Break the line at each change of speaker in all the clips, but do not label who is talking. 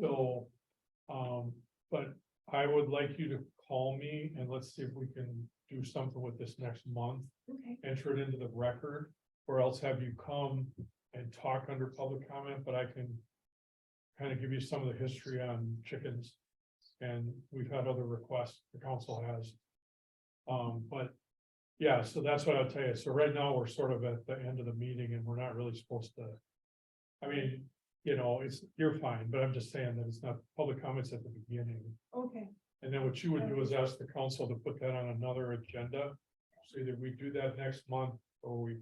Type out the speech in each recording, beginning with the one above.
So, um, but I would like you to call me and let's see if we can do something with this next month.
Okay,
Enter it into the record, or else have you come and talk under public comment, but I can. Kind of give you some of the history on chickens. And we've had other requests, the council has. Um, but, yeah, so that's what I'll tell you. So right now, we're sort of at the end of the meeting and we're not really supposed to. I mean, you know, it's, you're fine, but I'm just saying that it's not public comments at the beginning.
okay,
And then what you would do is ask the council to put that on another agenda. So either we do that next month or we.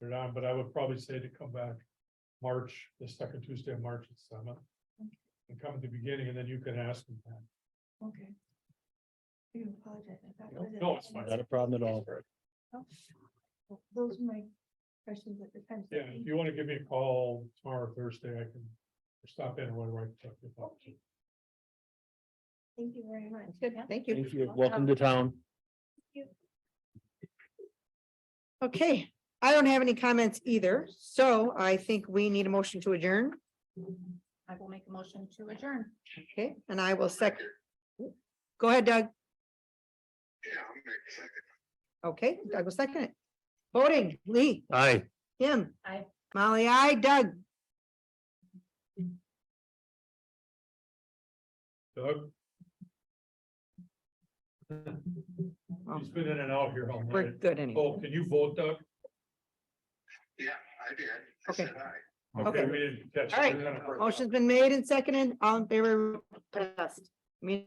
Put it on, but I would probably say to come back March, the second Tuesday of March at seven. And come at the beginning and then you can ask them that.
okay. I do apologize. I thought it was at
No,
the
it's fine.
end.
Not a problem at all.
Oh, Those are my questions at the time.
Yeah, if you want to give me a call tomorrow, or Thursday, I can stop in or whatever. I can talk to you
Okay.
about.
Thank you very much.
Good,
Yeah.
thank you.
Thank you. Welcome to town.
Okay, I don't have any comments either, so I think we need a motion to adjourn.
I will make a motion to adjourn.
Okay, and I will second. Go ahead, Doug. Okay, Doug will second it. Voting, Lee,
Aye.
Kim.
Aye.
Molly, I, Doug.
Doug? He's been in and out here all
We're
night.
good anyway.
Oh, can you vote, Doug?
I did. I
Okay.
said aye.
Okay,
Okay.
we didn't catch.
All right.
it.
Motion's been made and seconded. All in favor? press. Me-